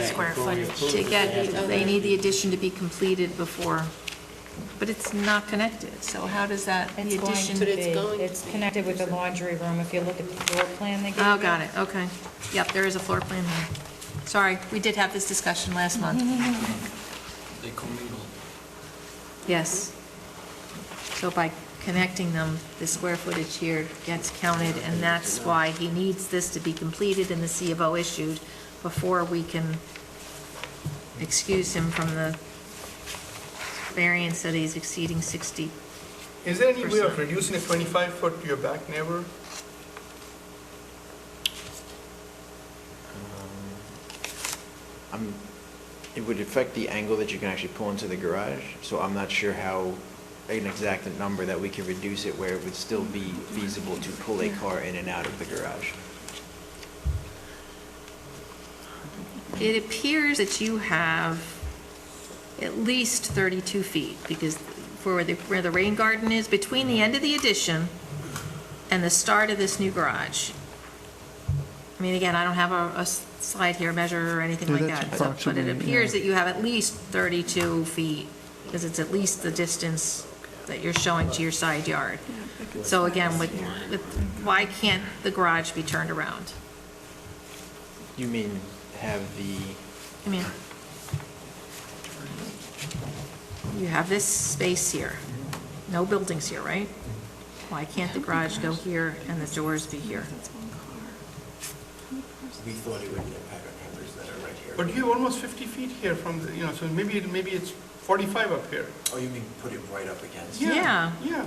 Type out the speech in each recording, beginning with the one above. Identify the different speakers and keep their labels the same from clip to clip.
Speaker 1: square footage.
Speaker 2: To get, they need the addition to be completed before, but it's not connected, so how does that, the
Speaker 3: It's going
Speaker 2: addition?
Speaker 3: to
Speaker 1: But it's
Speaker 3: be,
Speaker 1: going to
Speaker 3: it's
Speaker 1: be.
Speaker 3: connected with the laundry room, if you look at the floor plan they gave you.
Speaker 2: Oh, got it, okay. Yep, there is a floor plan here. Sorry, we did have this discussion last month.
Speaker 4: They commingle.
Speaker 2: Yes. So by connecting them, the square footage here gets counted, and that's why he needs this to be completed and the C of O issued before we can excuse him from the variance that he's exceeding 60.
Speaker 5: Is there any way of
Speaker 2: Percent.
Speaker 5: reducing a 25-foot to your back neighbor?
Speaker 6: Um, I'm, it would affect the angle that you can actually pull into the garage, so I'm not sure how, an exact number that we could reduce it where it would still be feasible to pull a car in and out of the garage.
Speaker 2: It appears that you have at least 32 feet, because for where the, where the rain garden is, between the end of the addition and the start of this new garage. I mean, again, I don't have a, a slide here measure or anything
Speaker 7: Yeah,
Speaker 2: like that,
Speaker 7: that's
Speaker 2: so- but it
Speaker 7: approximately,
Speaker 2: appears
Speaker 7: yeah.
Speaker 2: that you have at least 32 feet, because it's at least the distance that you're showing to your side yard. So again, with, with, why can't the garage be turned around?
Speaker 6: You mean have the,
Speaker 2: I mean, you have this space here, no buildings here, right? Why can't the garage go here and the doors be here?
Speaker 8: We thought it would impact our neighbors that are right here.
Speaker 5: But you have almost 50 feet here from, the- you know, so maybe, it- maybe it's 45 up here.
Speaker 8: Oh, you mean put it right up against?
Speaker 2: Yeah.
Speaker 5: Yeah,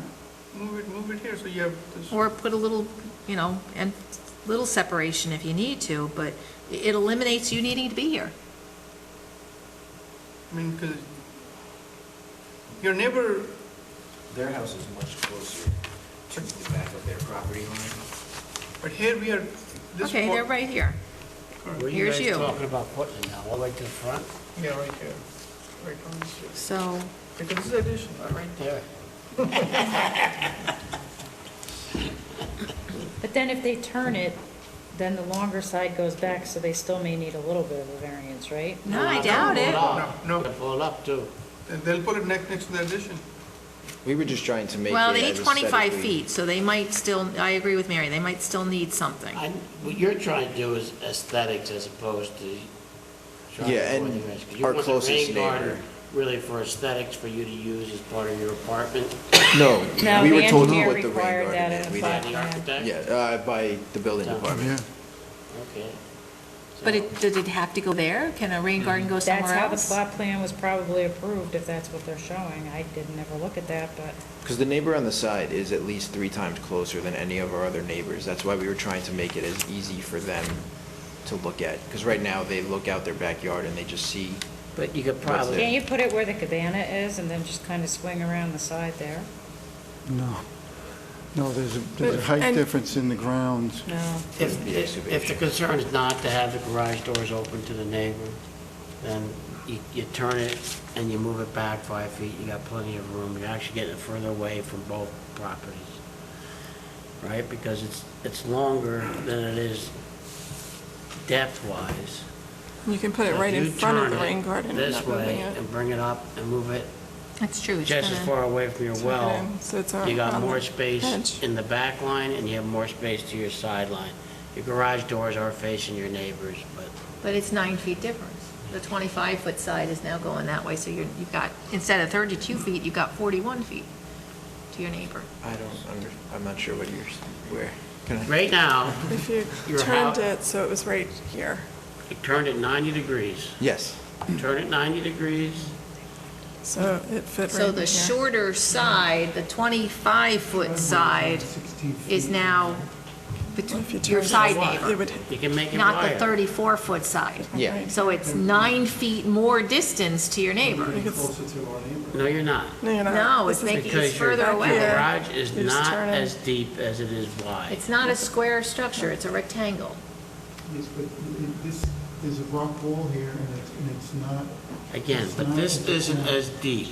Speaker 5: move it, move it here, so you have this.
Speaker 2: Or put a little, you know, and little separation if you need to, but it eliminates you needing to be here.
Speaker 5: I mean, because your neighbor,
Speaker 6: their house is much closer to the back of their property line.
Speaker 5: but here we are, this.
Speaker 2: Okay,
Speaker 5: wa-
Speaker 2: they're right here. Here's you.
Speaker 9: guys talking about putting it now, all the way to the front?
Speaker 5: Yeah, right here, right on this here.
Speaker 2: So,
Speaker 5: Because this is addition, right?
Speaker 9: Right there.
Speaker 3: But then if they turn it, then the longer side goes back, so they still may need a little bit of a variance, right?
Speaker 2: no, I doubt it.
Speaker 5: No, no.
Speaker 9: They pull it up too.
Speaker 5: And They'll put it next, next to the addition.
Speaker 6: We were just trying to make it
Speaker 2: Well, they need
Speaker 6: as
Speaker 2: 25
Speaker 6: aesthetically-
Speaker 2: feet, so they might still, I agree with Mary, they might still need something.
Speaker 9: I, what you're trying to do is aesthetics as opposed to trying
Speaker 6: Yeah,
Speaker 9: to
Speaker 6: and
Speaker 9: avoid the risk. 'Cause you
Speaker 6: our
Speaker 9: want the
Speaker 6: closest
Speaker 9: rain garden
Speaker 6: neighbor.
Speaker 9: Really for aesthetics for you to use as part of your apartment
Speaker 6: No,
Speaker 3: No,
Speaker 6: we
Speaker 3: the
Speaker 6: were told to
Speaker 3: engineer
Speaker 6: put the rain
Speaker 3: required that
Speaker 6: garden
Speaker 3: in
Speaker 6: in. We
Speaker 3: the
Speaker 9: by
Speaker 6: didn't.
Speaker 9: the
Speaker 3: Yeah.
Speaker 9: architect?
Speaker 6: Yeah, uh, by the building
Speaker 9: Yeah.
Speaker 6: department.
Speaker 7: Yeah,
Speaker 9: Okay.
Speaker 2: But
Speaker 9: So-
Speaker 2: it, did it have to go there? Can a rain garden go
Speaker 3: That's
Speaker 2: somewhere
Speaker 3: how the
Speaker 2: else?
Speaker 3: plot plan was probably approved, if that's what they're showing. I didn't ever look at that, but.
Speaker 6: Because the neighbor on the side is at least three times closer than any of our other neighbors. That's why we were trying to make it as easy for them to look at. Because right now, they look out their backyard and they just see,
Speaker 9: But you could
Speaker 6: What's
Speaker 9: probably.
Speaker 3: Can't you put it where the cabana is and then just kind of swing around the side there?
Speaker 7: no. No, there's a, there's a height
Speaker 1: And-
Speaker 7: difference in the grounds.
Speaker 3: No.
Speaker 6: Wouldn't be
Speaker 9: If,
Speaker 6: excavation.
Speaker 9: if the concern is not to have the garage doors open to the neighbor, then you, you turn it and you move it back five feet, you got plenty of room, you're actually getting it further away from both properties. Right, because it's, it's longer than it is depth-wise.
Speaker 1: You can put it right in
Speaker 9: You
Speaker 1: front of
Speaker 9: turn
Speaker 1: the
Speaker 9: it
Speaker 1: rain garden. and
Speaker 9: This
Speaker 1: not moving
Speaker 9: way,
Speaker 1: it.
Speaker 9: and bring it up and move it
Speaker 2: That's true. it's
Speaker 9: just as
Speaker 2: gonna-
Speaker 9: far away from your
Speaker 1: Tuck it
Speaker 9: well.
Speaker 1: in, so it's on-
Speaker 9: You got
Speaker 1: on
Speaker 9: more
Speaker 1: the
Speaker 9: space
Speaker 1: edge.
Speaker 9: in the back line, and you have more space to your sideline. Your garage doors are facing your neighbors, but
Speaker 2: But it's nine feet difference. The 25-foot side is now going that way, so you're, you've got, instead of 32 feet, you've got 41 feet to your neighbor.
Speaker 6: I don't, under- I'm not sure what yours, where. Can I-
Speaker 9: right now,
Speaker 1: If you
Speaker 9: Your house-
Speaker 1: turned it, so it was right here.
Speaker 9: you turned it 90 degrees.
Speaker 6: Yes.
Speaker 9: Turn it 90 degrees,
Speaker 1: So it fit right
Speaker 2: So
Speaker 1: in
Speaker 2: the
Speaker 1: here.
Speaker 2: shorter side, the 25-foot side, is now
Speaker 1: If you
Speaker 2: between your
Speaker 1: turned it,
Speaker 2: side
Speaker 1: It
Speaker 2: neighbor,
Speaker 1: would,
Speaker 9: you can make it
Speaker 2: not the
Speaker 9: wider.
Speaker 2: 34-foot side.
Speaker 6: Yeah.
Speaker 2: So it's nine feet more distance to your neighbor.
Speaker 9: No, you're not.
Speaker 1: no, you're not.
Speaker 2: No,
Speaker 1: This
Speaker 2: it's
Speaker 1: is-
Speaker 2: making, it's
Speaker 9: Because your-
Speaker 2: further
Speaker 1: back
Speaker 2: away.
Speaker 9: Your
Speaker 1: here.
Speaker 9: garage is
Speaker 1: You just
Speaker 9: not
Speaker 1: turn it.
Speaker 9: as deep as it is wide.
Speaker 2: It's not a square structure, it's a rectangle.
Speaker 10: Yes, but it- this, there's a rock wall here, and it's, and it's not,
Speaker 9: Again,
Speaker 10: it's
Speaker 9: but
Speaker 10: not
Speaker 9: this
Speaker 10: as-
Speaker 9: isn't as deep.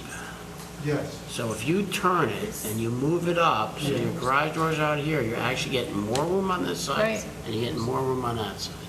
Speaker 10: yes.
Speaker 9: So if you turn it and you move it up, so your garage door's out here, you're actually getting more room on this side,
Speaker 2: Right.
Speaker 9: and you're getting more room on that side.